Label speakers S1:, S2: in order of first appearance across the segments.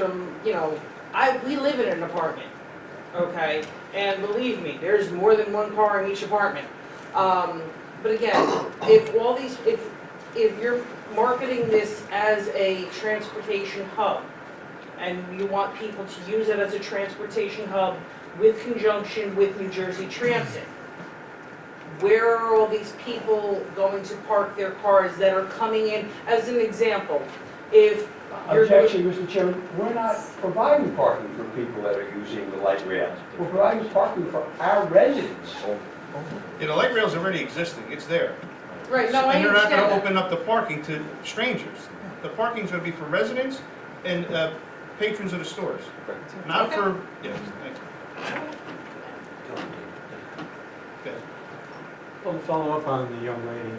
S1: from, you know, I, we live in an apartment, okay? And believe me, there's more than one car in each apartment. Um, but again, if all these, if, if you're marketing this as a transportation hub, and you want people to use it as a transportation hub with conjunction with New Jersey Transit, where are all these people going to park their cars that are coming in? As an example, if you're.
S2: Objection, Mr. Chairman, we're not providing parking for people that are using the light rail. We're providing parking for our residents.
S3: Yeah, the light rail's already existing, it's there.
S1: Right, no, I
S3: And you're not gonna
S1: understand that.
S3: open up the parking to strangers. The parking's gonna be for residents and uh, patrons of the stores, not for, yeah. thank you. Okay.
S4: Well, to follow up on the young lady,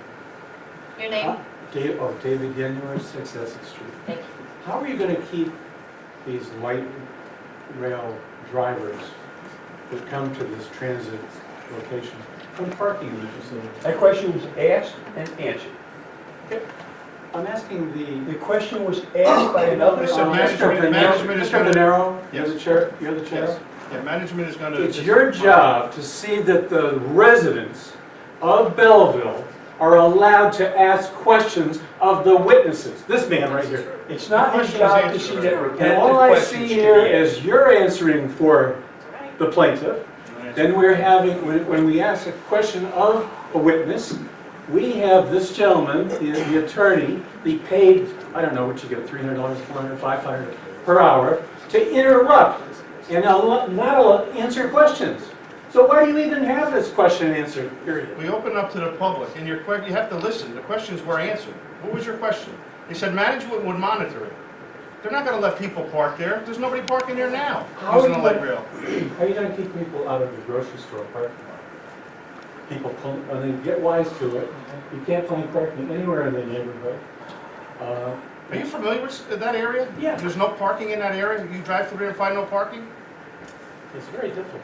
S5: Your name?
S4: Da- oh, David Yenuar, Six Essex Street.
S5: Thank you.
S4: How are you gonna keep these light rail drivers that come to this transit location from parking in the facility?
S2: That question was asked and answered.
S4: I'm asking the.
S2: The question was asked by another.
S3: Mr.
S4: Uh,
S3: Management-
S4: Mr. Venero-
S3: management is gonna-
S4: Mr. Venero, you're the
S3: Yes.
S4: chair, you're the chair.
S3: Yes, yeah, management is gonna.
S4: It's your job to see that the residents of Belleville are allowed to ask questions of the witnesses. This man right here.
S2: It's not his
S3: The question was
S2: job to
S3: answered
S2: see
S3: already.
S2: that
S4: And
S2: repetitive
S4: all I see
S2: questions should be
S4: here
S2: asked.
S4: is you're answering for the plaintiff. Then we're having, when when we ask a question of a witness, we have this gentleman, the the attorney, be paid, I don't know what you get, $300, $400, $500 per hour, to interrupt and al- not al- answer questions. So why do you even have this question and answer period?
S3: We open up to the public, and your que, you have to listen, the questions were answered. What was your question? They said management would monitor it. They're not gonna let people park there, there's nobody parking there now,
S2: How
S3: using
S2: are
S3: the
S2: you
S3: light
S2: gonna-
S3: rail.
S4: How are you going to keep people out of the grocery store parking lot? People, pull- and they get wise to it. You can't find parking anywhere in the neighborhood. Uh,
S3: Are you familiar with s- that area?
S4: Yeah.
S3: There's no parking in that area? You drive through there and find no parking?
S4: It's very difficult.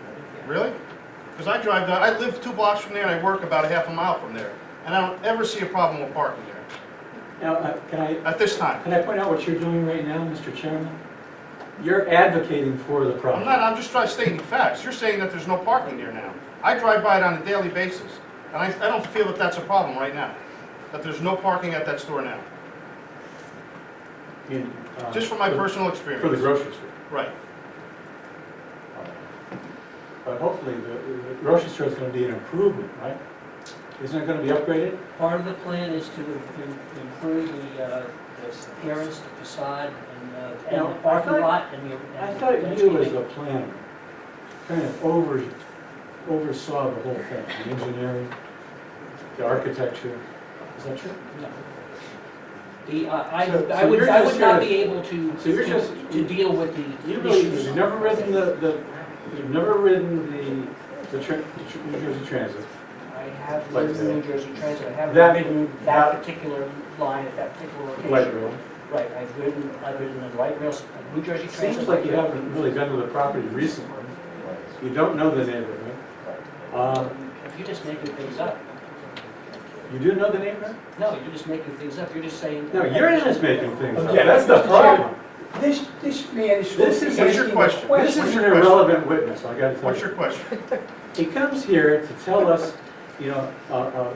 S3: Really? Because I drive down, I live two blocks from there and I work about a half a mile from there. And I don't ever see a problem with parking there,
S4: Now, uh, can I,
S3: at this time.
S4: can I point out what you're doing right now, Mr. Chairman? You're advocating for the
S3: I'm not,
S4: problem.
S3: I'm just trying to state the facts. You're saying that there's no parking there now. I drive by it on a daily basis, and I, I don't feel that that's a problem right now, that there's no parking at that store now,
S4: You- uh,
S3: just from my
S4: for-
S3: personal
S4: For the
S3: experience.
S4: grocery store.
S3: Right.
S4: But hopefully, the the grocery store is going to be an improvement, right? Isn't it going to be upgraded?
S6: Part of the plan is to to improve the uh, the appearance, the facade, and
S4: Now,
S6: uh, and
S4: I
S6: the parking
S4: thought-
S6: lot, and the... and
S4: I
S6: the
S4: thought you as
S6: landscaping.
S4: a planner kind of over, oversaw the whole thing, the engineering, the architecture. Is that true?
S6: No. The, uh, I
S4: So-
S6: I
S4: so
S6: would,
S4: you're
S6: I
S4: just
S6: would not
S4: here-
S6: be able to,
S4: so you're
S6: to-
S4: just-
S6: to deal with
S4: You
S6: the
S4: really,
S6: issues.
S4: you've never ridden the, the, you've never ridden the, the tra- the tr- New Jersey Transit.
S6: I have
S4: Like
S6: lived in
S4: that.
S6: New Jersey Transit, I
S4: That-
S6: haven't ridden
S4: that-
S6: that particular line at that particular location.
S4: Light rail.
S6: Right, I've ridden, I've ridden the light rail, New Jersey Transit.
S4: Seems like you haven't really been to the property recently. You don't know the neighborhood. Uh,
S6: You're just making things up.
S4: You do know the neighborhood?
S6: No, you're just making things up, you're just saying...
S4: No, you're just making things up.
S2: Yeah,
S4: that's
S2: the problem. This, this man is.
S4: This is-
S3: What's your question?
S4: This is an irrelevant witness, I gotta tell
S3: What's
S4: you.
S3: your question?
S4: He comes here to tell us, you know, uh, uh,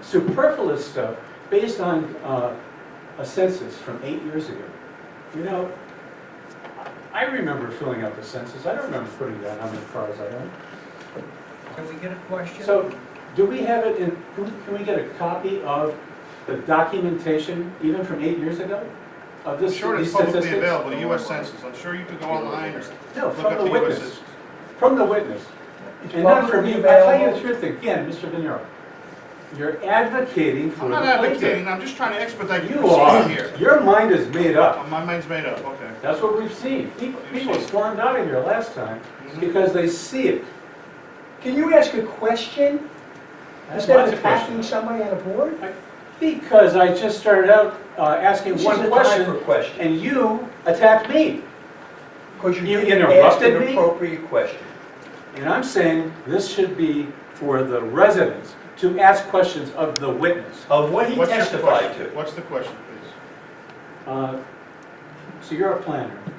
S4: superfluous stuff based on uh, a census from eight years ago. You know, I I remember filling out the census, I don't remember putting down how many cars I own.
S7: Can we get a question?
S4: So, do we have it in, can we- can we get a copy of the documentation, even from eight years ago? Of
S3: I'm
S4: this,
S3: sure
S4: these
S3: it's publicly
S4: statistics?
S3: available, the US Census, I'm sure you could go online or
S4: No,
S3: look
S4: from
S3: up
S4: the
S3: the US
S4: witness,
S3: Census.
S4: from the witness.
S2: It's
S4: And not from
S2: publicly
S4: you, I tell you the
S2: available.
S4: truth again, Mr. Venero, you're advocating for
S3: I'm
S4: the
S3: not
S4: plaintiff.
S3: advocating, I'm just trying to expedite the
S4: You are,
S3: proceeding here.
S4: your mind is made
S3: Oh,
S4: up.
S3: My mind's made up, okay.
S4: That's what we've seen. People people
S3: Understand.
S4: stormed out of here last time
S3: Mhm.
S4: because they see it.
S2: Can you ask a question
S4: I have
S2: instead
S4: lots
S2: of
S4: of questions.
S2: attacking somebody on a board?
S4: Because I just started out uh, asking
S2: This is
S4: one
S2: a
S4: question
S2: time for questions.
S4: and you attacked me.
S2: Because
S4: You
S2: you didn't ask
S4: interrupted
S2: an
S4: me?
S2: appropriate question.
S4: And I'm saying this should be for the residents to ask questions of the witness.
S2: Of what he
S3: What's your
S2: testified
S3: question?
S2: to.
S3: What's the question, please?
S4: Uh, So you're a planner.